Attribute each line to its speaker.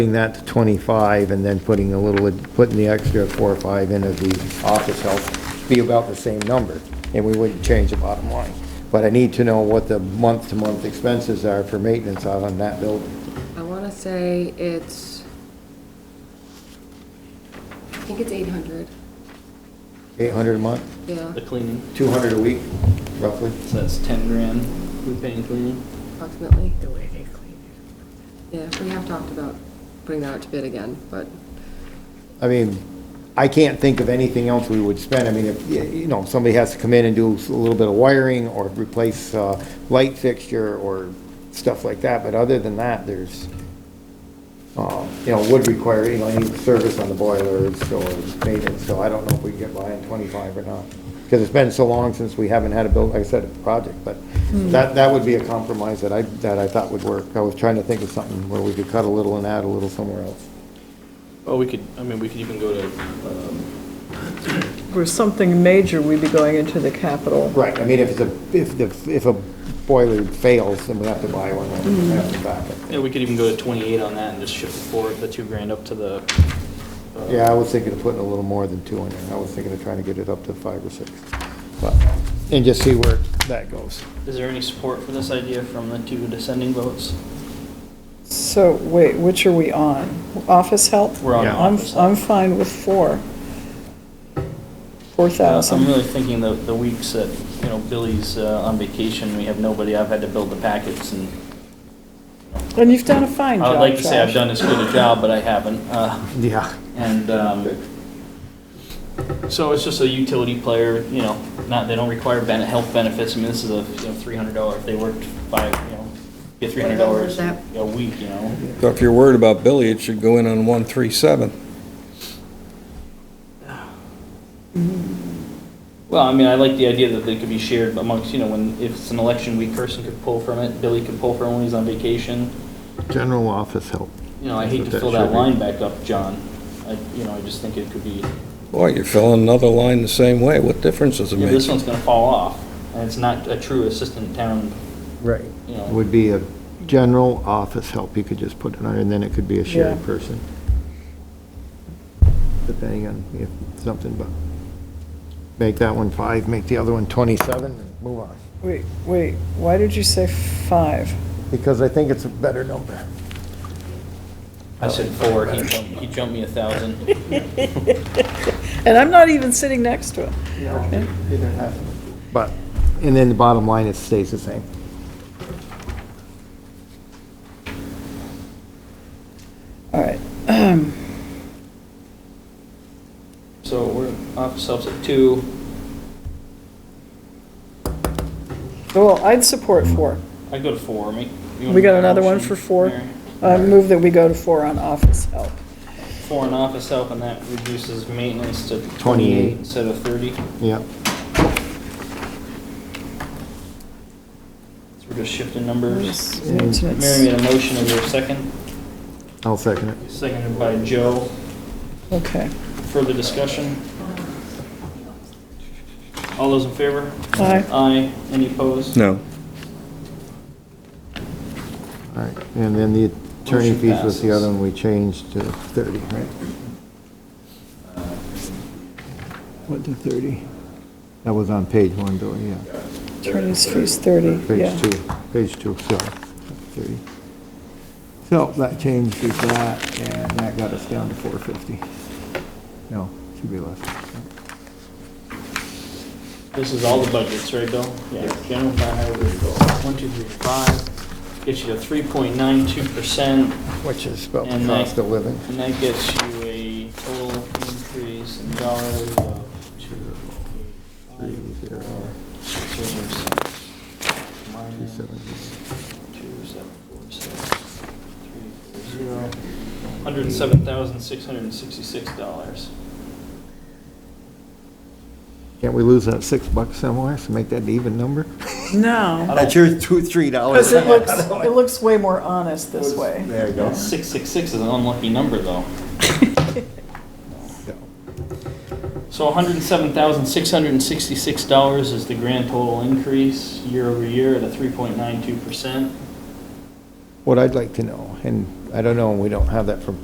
Speaker 1: Putting that to 25 and then putting a little, putting the extra four or five into the office help, be about the same number, and we wouldn't change the bottom line. But I need to know what the month-to-month expenses are for maintenance out on that building.
Speaker 2: I want to say it's, I think it's 800,
Speaker 1: 800 a month,
Speaker 2: yeah,
Speaker 3: The cleaning,
Speaker 1: 200 a week, roughly.
Speaker 3: so that's ten grand we pay in cleaning.
Speaker 2: approximately.
Speaker 4: the way they clean it.
Speaker 2: Yeah, we have talked about putting that out to bid again, but
Speaker 1: I mean, I can't think of anything else we would spend. I mean, if, y- you know, somebody has to come in and do a little bit of wiring or replace uh, light fixture or stuff like that, but other than that, there's, um, you know, would require, you know, any service on the boilers or maintenance, so I don't know if we can get by in 25 or not. Because it's been so long since we haven't had a build, like I said, a project, but that, that would be a compromise that I, that I thought would work. I was trying to think of something where we could cut a little and add a little somewhere else.
Speaker 3: Oh, we could, I mean, we could even go to, um,
Speaker 5: For something major, we'd be going into the capital.
Speaker 1: Right, I mean, if it's a, if the, if a boiler fails, then we have to buy one, and we have to back
Speaker 3: yeah,
Speaker 1: it.
Speaker 3: we could even go to twenty-eight on that and just shift the four, the two grand up to the. uh,
Speaker 1: Yeah, I was thinking of putting a little more than two in there, I was thinking of trying to get it up to five or six, but, and just see where that goes.
Speaker 3: Is there any support for this idea from the two descending votes?
Speaker 5: So, wait, which are we on? Office help?
Speaker 3: We're on
Speaker 1: Yeah.
Speaker 5: I'm,
Speaker 3: office help.
Speaker 5: I'm fine with four. Four
Speaker 3: Uh, I'm
Speaker 5: thousand.
Speaker 3: really thinking the, the weeks that, you know, Billy's uh, on vacation, we have nobody, I've had to build the packets and
Speaker 5: And you've done a fine job,
Speaker 3: I would like to say I've
Speaker 5: Josh.
Speaker 3: done as good a job, but I haven't. Uh,
Speaker 1: Yeah.
Speaker 3: And, um, so it's just a utility player, you know, not, they don't require bene health benefits. I mean, this is a, you know, three hundred dollar, if they worked five, you know, get three hundred dollars a week, you know?
Speaker 6: So if you're worried about Billy, it should go in on 137.
Speaker 3: Well, I mean, I like the idea that they could be shared amongst, you know, when, if it's an election week, Kirsten could pull from it, Billy could pull from it when he's on vacation.
Speaker 1: General office help.
Speaker 3: You know, I
Speaker 1: That's
Speaker 3: hate
Speaker 1: what
Speaker 3: to
Speaker 1: that
Speaker 3: fill that
Speaker 1: should be.
Speaker 3: line back up, John. I, you know, I just think it could be,
Speaker 6: Boy, you're filling another line the same way. What difference does it
Speaker 3: yeah,
Speaker 6: make?
Speaker 3: this one's gonna fall off, and it's not a true assistant town,
Speaker 1: Right.
Speaker 3: you know.
Speaker 1: Would be a general office help, you could just put it under, and then it could be a shared
Speaker 5: Yeah.
Speaker 1: person. Depending on if something, but make that one five, make the other one 27, and move on.
Speaker 5: Wait, wait, why did you say five?
Speaker 1: Because I think it's a better number.
Speaker 3: I said four, he jumped, he jumped me a thousand.
Speaker 5: And I'm not even sitting next to him.
Speaker 1: But, and then the bottom line, it stays the same.
Speaker 5: All right,
Speaker 3: So we're office helps at two,
Speaker 5: well, I'd support four.
Speaker 3: I go to four, make. you wanna
Speaker 5: We got
Speaker 3: make a
Speaker 5: another one
Speaker 3: motion,
Speaker 5: for four?
Speaker 3: Mary?
Speaker 5: I move that we go to four on office help.
Speaker 3: Four in office help, and that reduces maintenance to
Speaker 1: 28.
Speaker 3: twenty-eight instead of thirty.
Speaker 1: Yep.
Speaker 3: So we're just shifting numbers. Mary
Speaker 5: Maintenance.
Speaker 3: made a motion, is there a second?
Speaker 1: I'll second it.
Speaker 3: Seconded by Joe.
Speaker 5: Okay.
Speaker 3: Further discussion? All those in favor?
Speaker 5: Aye.
Speaker 3: Aye. Any opposed?
Speaker 6: No.
Speaker 1: All right, and then the attorney
Speaker 3: Motion
Speaker 1: fees was the
Speaker 3: passes.
Speaker 1: other one we changed to 30, right? What to 30? That was on page one, Bill, yeah.
Speaker 5: Attorney's fees thirty, yeah.
Speaker 1: Page two, page two, sorry, 30. So that changed to that, and that got us down to 450. No, should be less.
Speaker 3: This is all the budgets, right, Bill? Yeah. General fund, highway, vehicle. one, two, three, five, gets you to three point nine two percent,
Speaker 1: Which is about the
Speaker 3: And I-
Speaker 1: cost of living.
Speaker 3: and that gets you a total increase in dollars of two, eight, five,
Speaker 1: Three, zero.
Speaker 3: four, six, zero, seven, minus
Speaker 1: seven,
Speaker 3: two, seven, four, six, three, four, zero, hundred and seven thousand, six hundred and sixty-six dollars.
Speaker 1: Can't we lose that six bucks somewhere, so make that an even number?
Speaker 5: No,
Speaker 1: That's your two, three dollars.
Speaker 5: because it looks, it looks way more honest this way.
Speaker 1: There you go.
Speaker 3: Six, six, six is an unlucky number, though. So $107,666 is the grand total increase year over year at a 3.92%.
Speaker 1: What I'd like to know, and I don't know, we don't have that from